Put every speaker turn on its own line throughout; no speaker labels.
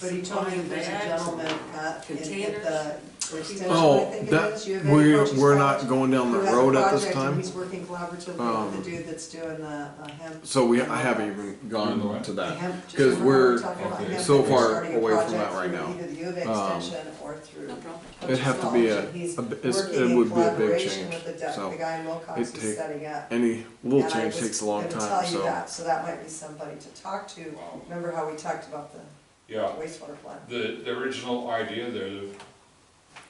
But he told me there's a
bags and
gentleman at, in- at the
containers.
extension, I
Oh,
think it
that,
is, you have any
we,
purchase
we're
plans?
not going down
Who
that
has a
road at
project
this
and
time,
He's working collaboratively
Um,
with the dude that's doing the, uh, hemp.
so we, I haven't even gone to
the
that.
hemp- just
'cause
remember
we're
talking about hemp,
so
that we're
far
starting a
away from
project
that right
through
now.
Either the U of A
Um,
extension or through.
No problem.
It'd have to be a-
He's
a bi- it's- it
working in
would be a big
collaboration with
change,
the de-
so
The guy in Wilcox
it'd
is
take-
setting up.
Any little
And I
change
was
takes a long
gonna
time,
tell you
so.
that, so that might be somebody to talk to,
Wow.
remember how we talked about the
Yeah,
wastewater plant?
the, the original idea there that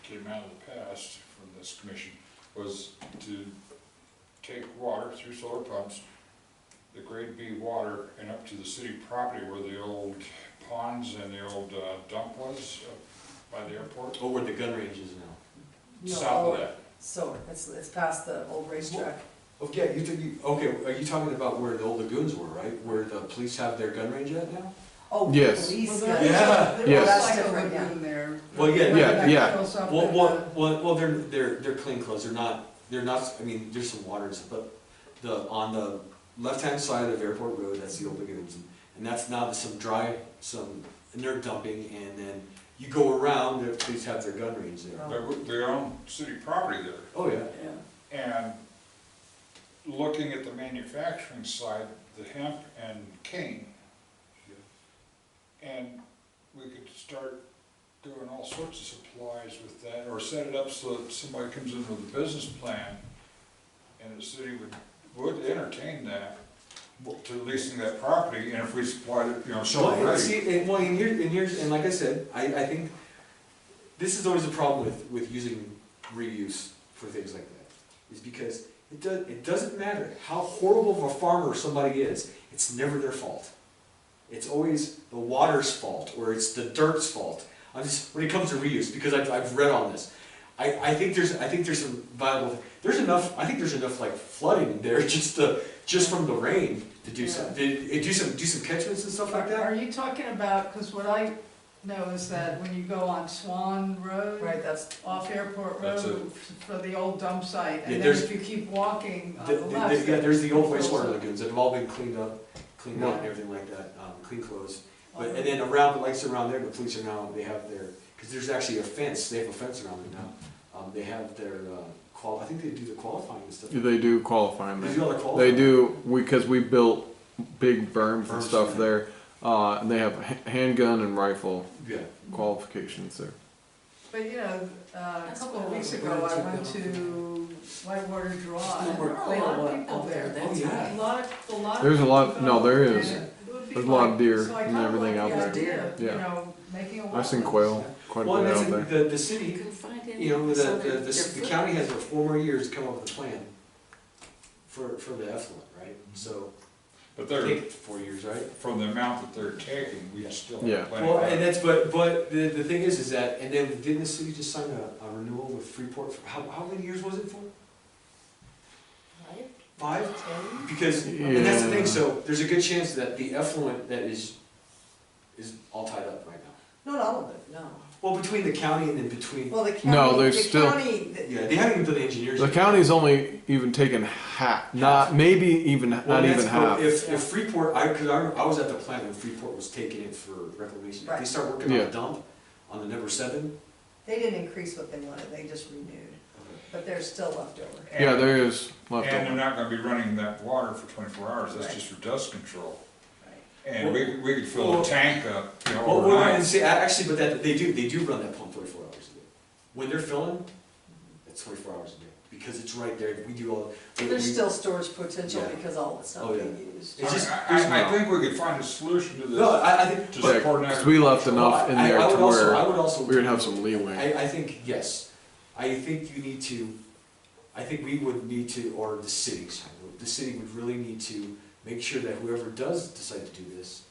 came out of the past from this commission was to take water through solar pumps, the grade B water, and up to the city property where the old ponds and the old uh, dump was uh, by the airport,
Oh, where the gun range is now.
No,
south of that.
So, it's, it's past the old racetrack,
Okay, Oh, you, think you- okay, are you talking about where the old lagoons were, right? Where the police have their gun range at now?
oh,
Yes.
police.
Yeah.
Yes.
That's different, yeah.
there.
Well, yeah,
Yeah, yeah.
Well, well, well, well, they're, they're, they're clean clothes, they're not, they're not, I mean, there's some water and stuff, but the, on the left-hand side of Airport Road, that's the old lagoons. And that's now there's some dry, some, and they're dumping, and then you go around, the police have their gun range there.
They were- They own city property there.
Oh, yeah.
And looking at the manufacturing side, the hemp and cane. And we could start doing all sorts of supplies with that, or set it up so that somebody comes in with a business plan, and the city would, would entertain that, to leasing that property, and if we supplied it, you know, so
Well, and
already.
see, and, well, and here, and here's, and like I said, I, I think this is always a problem with, with using reuse for things like that. Is because it does, it doesn't matter how horrible of a farmer somebody is, it's never their fault. It's always the water's fault, or it's the dirt's fault. I'm just, when it comes to reuse, because I've, I've read on this, I, I think there's, I think there's some viable, there's enough, I think there's enough like flooding in there, just to, just from the rain to do some, to, do some, do some catchments and stuff like that.
Are you talking about, because what I know is that when you go on Swan Road,
Right, that's,
off Airport
That's
Road, for the old dump site,
Yeah,
and then
there's-
if you keep walking on
The-
the
the-
left.
Yeah, there's the old
there's
wastewater
also-
lagoons that have all been cleaned up, cleaned out and
Yeah.
everything like that, um, clean clothes. But, and then around, like, so around there, the police are now, they have their, because there's actually a fence, they have a fence around it now. Um, they have their, uh, qual, I think they do the qualifying and stuff. They
They do qualify me.
do all the qualifying.
They do, we, cause we built big berms and
Berms,
stuff
yeah.
there, uh, and they have ha- handgun and rifle
Yeah.
qualifications there.
But, you know, uh, a
That's
couple of
cool.
weeks ago, I went to Whitewater Draw,
There's
and
no
there were a lot
more
of people
out there
there.
than
Oh,
A
yeah.
lot of, a lot of.
There's a lot-
people,
no, there is.
and it would be
There's a lot of
like-
deer
so I
and
kinda like
everything out
the
there.
idea of,
Yeah.
You know, making a
I've seen
wetland.
quail quite a
Well, and
bit
that's,
out there.
it, the, the
You
city,
can find any.
you know, the,
so
the,
they're-
the,
they're
the county has for four more years to come up with a plan for, for the effluent, right? So,
But
I
they're,
think four years, right?
from the amount that they're taking, we still
Yeah.
have plenty.
Well, and
left.
that's, but, but the, the thing is, is that, and then didn't the city just sign a, a renewal with Freeport for, how, how many years was it for?
Right?
Five?
Ten?
Because, and that's the
Yeah.
thing, so there's a good chance that the effluent that is, is all tied up right now.
not all of it, no.
Well, between the county and then between,
Well, the
No,
county,
there's
the
still-
county, the-
yeah, they haven't even done the engineers.
The
yet.
county's only even taken half, not, maybe even,
Well,
not
and
even
that's- but
half.
If, if Freeport, I, cause I, I was at the plant when Freeport was taking it for reclamation. If they
Right.
start working on
Yeah.
a dump on the number seven,
they didn't increase what they wanted, they just renewed, but there's still leftover.
And-
Yeah, there is left
And they're
over.
not gonna be running that water for twenty-four hours, that's
Right.
just for dust control.
Right.
And we, we could fill a
Well-
tank up, you know,
Well, well, no, and
overnight.
see, a- actually, but that, they do, they do run that pump twenty-four hours a day. When they're filling, it's twenty-four hours a day, because it's right there, we do all. we-
There's
we-
still storage potential
Yeah.
because all it's not
Oh, yeah.
being used.
I,
It's just-
I- I, I think we could find a solution to
No,
this.
I, I think.
Just
but-
Yeah, 'cause we left enough in
I- I
there to
would also- I
where
would also.
we would have some leeway.
I, I think, yes, I think you need to, I think we would need to, or the cities, the city would really need to make sure that whoever does decide to do this,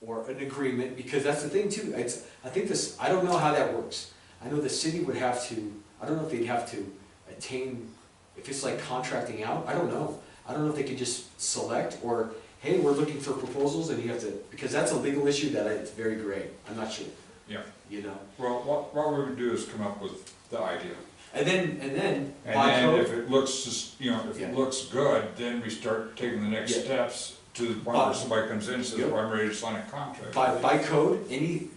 or an agreement, because that's the thing too, it's, I think this, I don't know how that works. I know the city would have to, I don't know if they'd have to attain, if it's like contracting out, I don't know. I don't know if they could just select, or, hey, we're looking for proposals, and you have to, because that's a legal issue that I- it's very gray, I'm not sure,
Yeah,
you know?
well, what, what we would do is come up with the idea.
And then, and then,
And
by
then if
code,
it looks, just- you know, if
Yeah.
it looks good, then we start taking the next
Yeah.
steps to the point where
But-
somebody comes in and says,
Yep.
well, I'm ready to sign a contract.
by, by code, any,